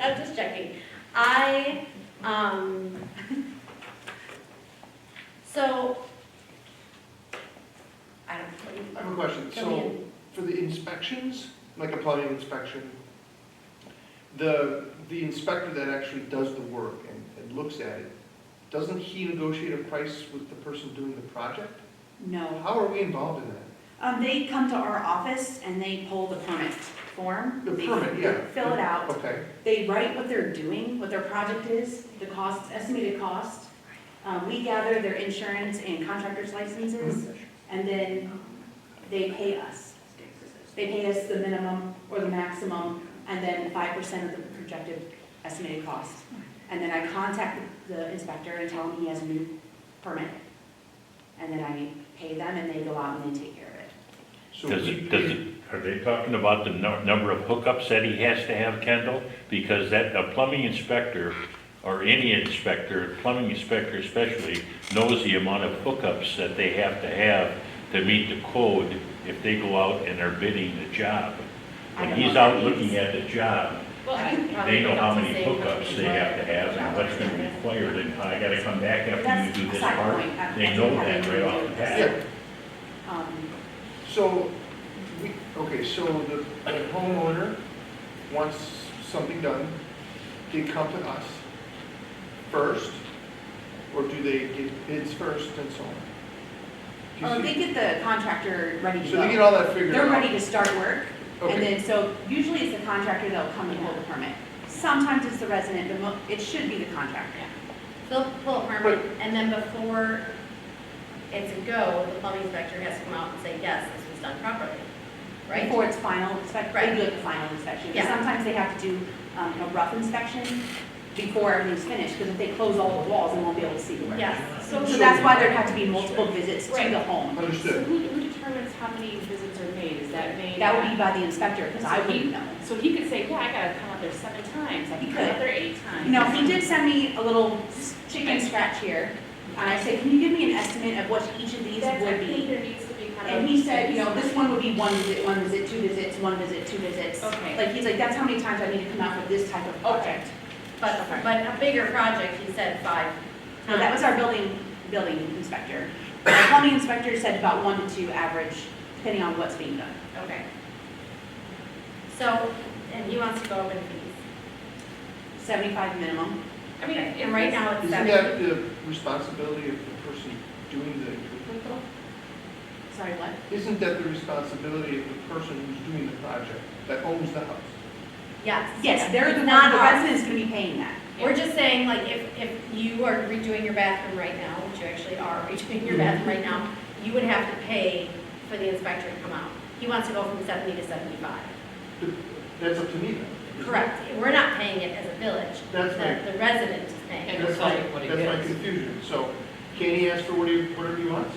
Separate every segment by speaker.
Speaker 1: I'm just checking. I, um, so, I don't.
Speaker 2: I have a question.
Speaker 1: Fill me
Speaker 2: So
Speaker 1: in.
Speaker 2: for the inspections, like a plumbing inspection, the, the inspector that actually does the work and, and looks at it, doesn't he negotiate a price with the person doing the project?
Speaker 3: No.
Speaker 2: How are we involved in that?
Speaker 3: Um, they come to our office and they pull the permit form.
Speaker 2: The
Speaker 3: They
Speaker 2: permit, yeah.
Speaker 3: Fill it out.
Speaker 2: Okay,
Speaker 3: They write what they're doing, what their project is, the cost, estimated cost. Um, we gather their insurance and contractor's licenses, and then they pay us. They pay us the minimum or the maximum, and then five percent of the projected estimated cost. And then I contact the inspector and tell him he has a new permit. And then I pay them, and they go out and they take care of it.
Speaker 2: so
Speaker 4: Does
Speaker 2: we
Speaker 4: it, does
Speaker 2: pay,
Speaker 4: it, are they talking about the nu- number of hookups that he has to have, Kendall? Because that, a plumbing inspector, or any inspector, plumbing inspector especially, knows the amount of hookups that they have to have to meet the code if they go out and are bidding the job.
Speaker 3: I
Speaker 4: When
Speaker 3: don't know
Speaker 4: he's
Speaker 3: what
Speaker 4: out
Speaker 3: that
Speaker 4: looking
Speaker 3: means.
Speaker 4: at the job,
Speaker 1: Well, I can probably
Speaker 4: they know
Speaker 1: look
Speaker 4: how
Speaker 1: up to
Speaker 4: many
Speaker 1: say much
Speaker 4: hookups they
Speaker 1: more
Speaker 4: have to have and what's gonna be
Speaker 1: about
Speaker 4: required, and I gotta come back
Speaker 3: That's
Speaker 4: after you do
Speaker 3: a
Speaker 4: this
Speaker 3: side
Speaker 4: part.
Speaker 3: point. I-
Speaker 4: They
Speaker 3: I
Speaker 4: know
Speaker 3: think I
Speaker 4: that
Speaker 3: can
Speaker 4: right
Speaker 3: do
Speaker 4: off the
Speaker 3: this.
Speaker 4: bat.
Speaker 3: Um,
Speaker 2: so, we, okay, so the the homeowner wants something done, they come to us first, or do they get bids first and so on? Do you
Speaker 3: Oh,
Speaker 2: see-
Speaker 3: they get the contractor ready to
Speaker 2: So they get
Speaker 3: go.
Speaker 2: all that figured out?
Speaker 3: They're ready to start work, and
Speaker 2: Okay,
Speaker 3: then, so usually it's the contractor that'll come and pull the permit. Sometimes it's the resident, but mo- it should be the contractor.
Speaker 1: They'll pull a permit, and then before it's a go, the plumbing inspector has to come out and say, yes, this was done properly, right?
Speaker 3: Before it's final inspection, they
Speaker 1: Right.
Speaker 3: do like a final inspection. But
Speaker 1: Yeah.
Speaker 3: Sometimes they have to do um, a rough inspection before everything's finished, because if they close all the walls, they won't be able to see the work.
Speaker 1: Yes, so,
Speaker 3: So that's why there'd have to be multiple visits to
Speaker 5: Right.
Speaker 3: the home.
Speaker 5: So
Speaker 2: understood.
Speaker 5: who, who determines how many visits are made? Is that made?
Speaker 3: That would be by the inspector, because I
Speaker 5: So he-
Speaker 3: wouldn't know.
Speaker 5: So he could say, yeah, I gotta come up there seven times, I
Speaker 3: He
Speaker 5: can come
Speaker 3: could.
Speaker 5: up there eight times.
Speaker 3: You know, he did send me a little chicken scratch here, and I said, can you give me an estimate of what each of these
Speaker 5: That's, I
Speaker 3: would
Speaker 5: think
Speaker 3: be?
Speaker 5: there needs to be kind of.
Speaker 3: And he said, you know, this one would be one visit, one visit, two visits, one visit, two visits.
Speaker 5: Okay.
Speaker 3: Like, he's like, that's how many times I need to come out for this type of project.
Speaker 1: but, but a bigger project, he said five.
Speaker 3: So that was our building, building inspector. Our plumbing inspector said about one to two average, depending on what's being done.
Speaker 1: Okay. So, and he wants to go up in fees.
Speaker 3: Seventy-five minimum.
Speaker 5: I mean,
Speaker 1: And right now it's
Speaker 2: Isn't
Speaker 1: seven.
Speaker 2: that the responsibility of the person doing the improvement though?
Speaker 3: Sorry, what?
Speaker 2: Isn't that the responsibility of the person who's doing the project, that owns the house?
Speaker 1: Yes.
Speaker 3: Yes, they're the one,
Speaker 1: Not
Speaker 3: the
Speaker 1: ours.
Speaker 3: resident's gonna be paying that.
Speaker 1: We're just saying, like, if, if you are redoing your bathroom right now, which you actually are redoing your bathroom right now, you would have to pay for the inspector to come out. He wants to go from seventy to seventy-five.
Speaker 2: That's up to me then.
Speaker 1: Correct. We're not paying it as a village.
Speaker 2: That's right.
Speaker 1: The, the resident is paying.
Speaker 2: That's my, that's my confusion. So can he ask for what he- whatever he wants?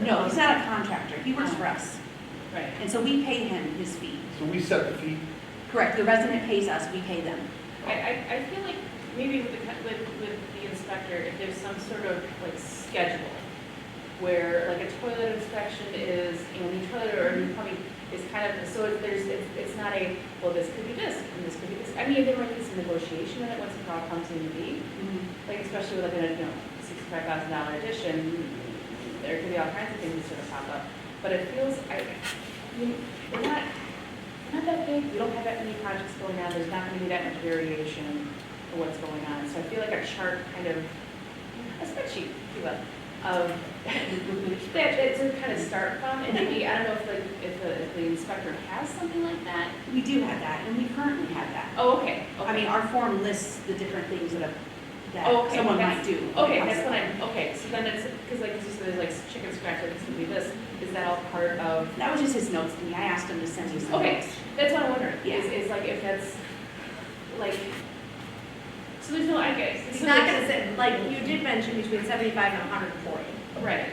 Speaker 3: No, he's not a contractor. He works for us.
Speaker 5: Right.
Speaker 3: And so we pay him his fee.
Speaker 2: So we set the fee?
Speaker 3: Correct, the resident pays us, we pay them.
Speaker 5: I, I, I feel like maybe with the, co- with, with the inspector, if there's some sort of like schedule where like a toilet inspection is, you know, new toilet or new plumbing is kind of, so if there's, it's, it's not a, well, this could be this, and this could be this. I mean, there might be some negotiation in it, what's the problem comes in to be,
Speaker 1: Mm-hmm.
Speaker 5: like especially with like a, you know, sixty-five thousand dollar addition, there could be all kinds of things that sort of pop up. But it feels, I, I mean, we're not, we're not that big, we don't have that many projects going on, there's not gonna be that much variation for what's going on. So I feel like a chart kind of, a spreadsheet, if you will, of, that, that's a kind of start from. And maybe, I don't know if the, if the, if the inspector has something like that.
Speaker 3: We do have that, and we currently have that.
Speaker 5: Oh, okay, okay.
Speaker 3: I mean, our form lists the different things that, a- that
Speaker 5: Oh, Okay,
Speaker 3: someone might
Speaker 5: that's-
Speaker 3: do.
Speaker 5: Okay, that's what I'm, okay, so then it's, because like, you said, there's like chicken scratch, like, it's gonna be this, is that all part of,
Speaker 3: That was just his notes to me, I asked him to send me some
Speaker 5: Okay.
Speaker 3: notes.
Speaker 5: that's what I'm wondering,
Speaker 3: Yeah.
Speaker 5: is, is like, if that's, like, so there's no, I guess.
Speaker 1: It's not gonna sit, like, you did mention between seventy-five and hundred and forty.
Speaker 5: Right,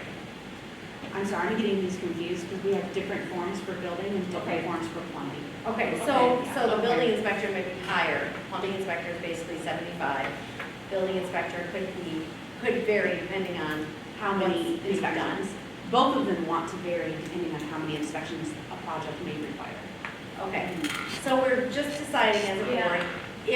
Speaker 3: I'm sorry, I'm getting these confused, because we have different forms for building and different
Speaker 5: Okay.
Speaker 3: forms for plumbing.
Speaker 1: Okay, so,
Speaker 5: Okay,
Speaker 1: so the
Speaker 5: okay.
Speaker 1: building inspector may be higher, plumbing inspector is basically seventy-five. Building inspector could be, could vary depending on
Speaker 3: How many
Speaker 1: What's being
Speaker 3: inspections? Both of them want to vary depending on how many inspections a project may require.
Speaker 1: Okay, so we're just deciding as a
Speaker 5: Yeah.
Speaker 1: board,